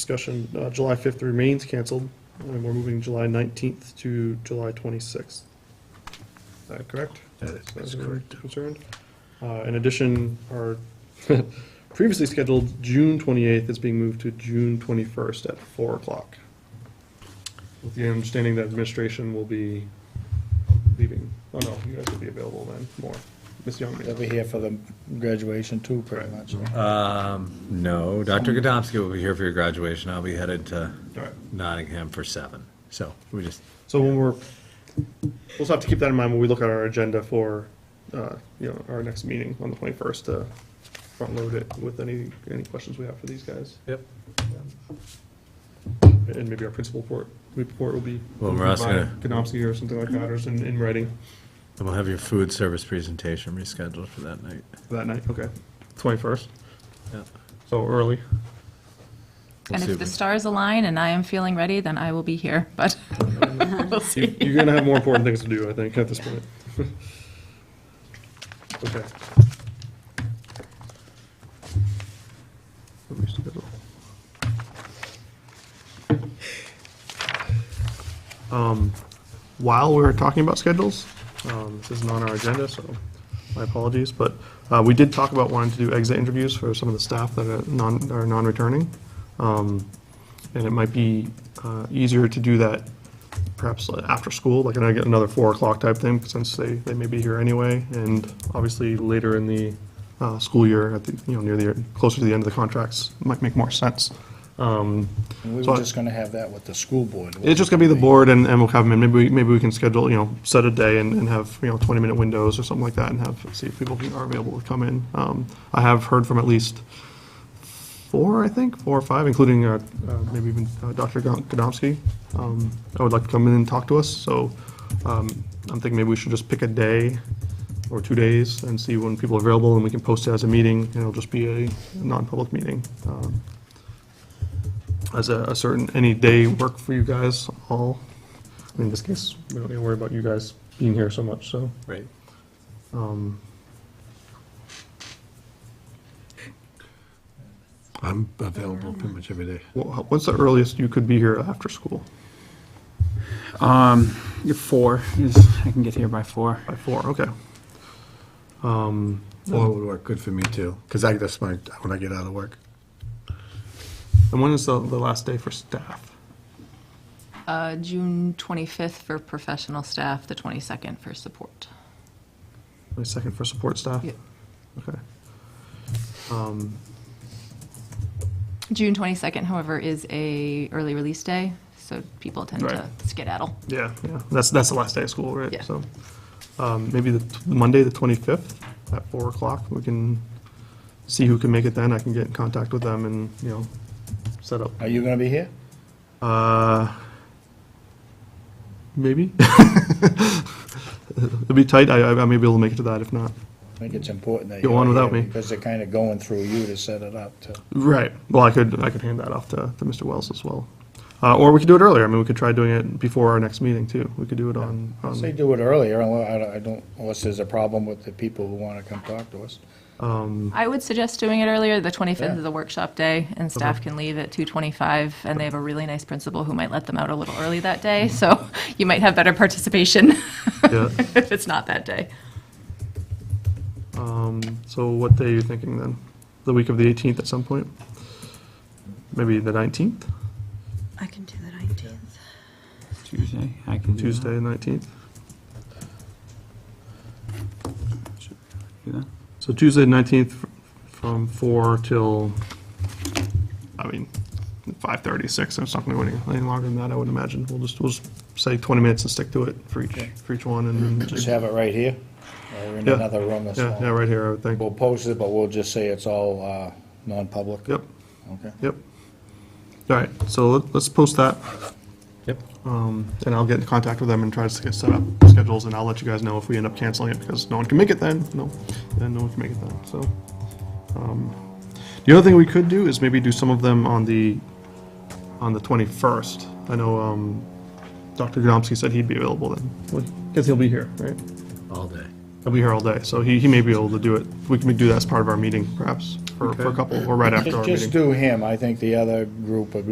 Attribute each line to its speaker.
Speaker 1: discussion, uh, July 5th remains canceled, and we're moving July 19th to July 26th. Is that correct?
Speaker 2: That is- that's
Speaker 1: As far as we're
Speaker 2: correct.
Speaker 1: Concerned. Uh, In addition, our previously scheduled June 28th is being moved to June 21st at 4 o'clock, with the understanding that administration will be leaving. Oh, no, you guys will be available then, more. Ms. Young may
Speaker 3: They'll
Speaker 1: not.
Speaker 3: be here for the graduation too, pretty
Speaker 1: Right.
Speaker 3: much.
Speaker 2: Um, no, Dr. Godomsky will be here for your graduation. I'll be headed to
Speaker 1: All right.
Speaker 2: Nottingham for seven. So we just,
Speaker 1: So when we're, we'll just have to keep that in mind when we look at our agenda for, uh, you know, our next meeting on the twenty-first to front load it with any, any questions we have for these guys.
Speaker 2: Yep.
Speaker 1: And maybe our principal report, report will be.
Speaker 2: Well, we're also gonna-
Speaker 1: Gnomsky or something like that, or in, in writing
Speaker 2: we'll have your food service presentation rescheduled for that night.
Speaker 1: that night, okay, twenty-first,
Speaker 2: Yeah.
Speaker 1: so early.
Speaker 2: We'll
Speaker 4: And
Speaker 2: see
Speaker 4: if the
Speaker 2: we-
Speaker 4: stars align and I am feeling ready, then I will be here, but we'll
Speaker 1: You-
Speaker 4: see.
Speaker 1: You're gonna have more important things to do, I think, at this point. Okay. Let me schedule. Um, While we were talking about schedules, um, this isn't on our agenda, so my apologies, but uh, we did talk about wanting to do exit interviews for some of the staff that are non, are non-returning. Um, And it might be uh, easier to do that perhaps after school, like I get another four o'clock type thing, since they, they may be here anyway, and obviously later in the uh, school year, at the, you know, near the, closer to the end of the contracts, might make more sense. Um,
Speaker 3: And we
Speaker 1: So I-
Speaker 3: were just gonna have that with the school board.
Speaker 1: It's just gonna be the board and, and we'll have them, and maybe, we- maybe we can schedule, you know, set a day and, and have, you know, twenty-minute windows or something like that, and have, see if people can- are available to come in. Um, I have heard from at least four, I think, four or five, including, uh, uh, maybe even uh, Dr. Gon- Godomsky, um, I would like to come in and talk to us, so, um, I'm thinking maybe we should just pick a day or two days and see when people are available, and we can post it as a meeting, and it'll just be a non-public meeting. Um, As a, a certain, any day work for you guys all? In this case, we don't need to worry about you guys being here so much, so.
Speaker 2: Right.
Speaker 1: um,
Speaker 5: I'm available pretty much every day.
Speaker 1: wha- What's the earliest you could be here after school?
Speaker 6: Um, your four is, I can get here by four.
Speaker 1: By four, okay. Um,
Speaker 5: Four would work good for me too, because I, that's my, when I get out of work.
Speaker 1: And when is the, the last day for staff?
Speaker 4: Uh, June 25th for professional staff, the 22nd for support.
Speaker 1: My second for support staff?
Speaker 4: Yeah.
Speaker 1: Okay. Um,
Speaker 4: June 22nd, however, is a early release day, so people tend to
Speaker 1: Right.
Speaker 4: skedaddle.
Speaker 1: Yeah, yeah, that's, that's the last day of school, right?
Speaker 4: Yeah.
Speaker 1: So, um, maybe the t- Monday, the twenty-fifth, at four o'clock, we can see who can make it then, I can get in contact with them and, you know, set up,
Speaker 3: Are you gonna be here?
Speaker 1: uh, maybe? It'll be tight, I, I may be able to make it to that, if not.
Speaker 3: I think it's important that
Speaker 1: Go
Speaker 3: you're
Speaker 1: on without
Speaker 3: here
Speaker 1: me.
Speaker 3: Because they're kinda going through you to set it up to.
Speaker 1: Right, well, I could, I could hand that off to, to Mr. Wells as well. Uh, or we could do it earlier, I mean, we could try doing it before our next meeting, too, we could do it on,
Speaker 3: I'd say
Speaker 1: on,
Speaker 3: do it earlier, unless, I don't- I don't, unless there's a problem with the people who wanna come talk to us.
Speaker 1: um,
Speaker 4: I would suggest doing it earlier. The 25th
Speaker 3: Yeah.
Speaker 4: is a workshop day, and staff can leave at 2:25, and they have a really nice principal who might let them out a little early that day, so you might have better participation
Speaker 1: yeah.
Speaker 4: if it's not that day.
Speaker 1: Um, so what day are you thinking then? The week of the 18th at some point? Maybe the 19th,
Speaker 7: I can do the nineteenth.
Speaker 6: Tuesday, I
Speaker 3: Mm-hmm.
Speaker 6: can do that.
Speaker 1: Tuesday, 19th?
Speaker 6: Do that.
Speaker 1: So Tuesday, 19th fr- from 4 till, I mean, 5:30, 6, it's not going to go any, any longer than that, I would imagine. We'll just, we'll just say 20 minutes and stick to it for each, for each one and then
Speaker 3: Just
Speaker 1: just,
Speaker 3: have it right here, or in
Speaker 1: Yeah.
Speaker 3: another room
Speaker 1: yeah, yeah,
Speaker 3: or something.
Speaker 1: right here, I would think.
Speaker 3: We'll post it, but we'll just say it's all, uh, non-public.
Speaker 1: Yep,
Speaker 3: Okay.
Speaker 1: yep. All right, so let- let's post that.
Speaker 2: Yep.
Speaker 1: Um, and I'll get in contact with them and try to get set up schedules, and I'll let you guys know if we end up canceling it, because no one can make it then, no, then no one can make it then, so. um, The other thing we could do is maybe do some of them on the, on the twenty-first. I know, um, Dr. Godomsky said he'd be available then, because he'll be here, right?
Speaker 2: All day.
Speaker 1: He'll be here all day, so he, he may be able to do it. We can do that as part of our meeting, perhaps, for, for a
Speaker 5: Okay.
Speaker 1: couple, or right after our
Speaker 3: Just
Speaker 1: meeting.
Speaker 3: just do him, I think the other group would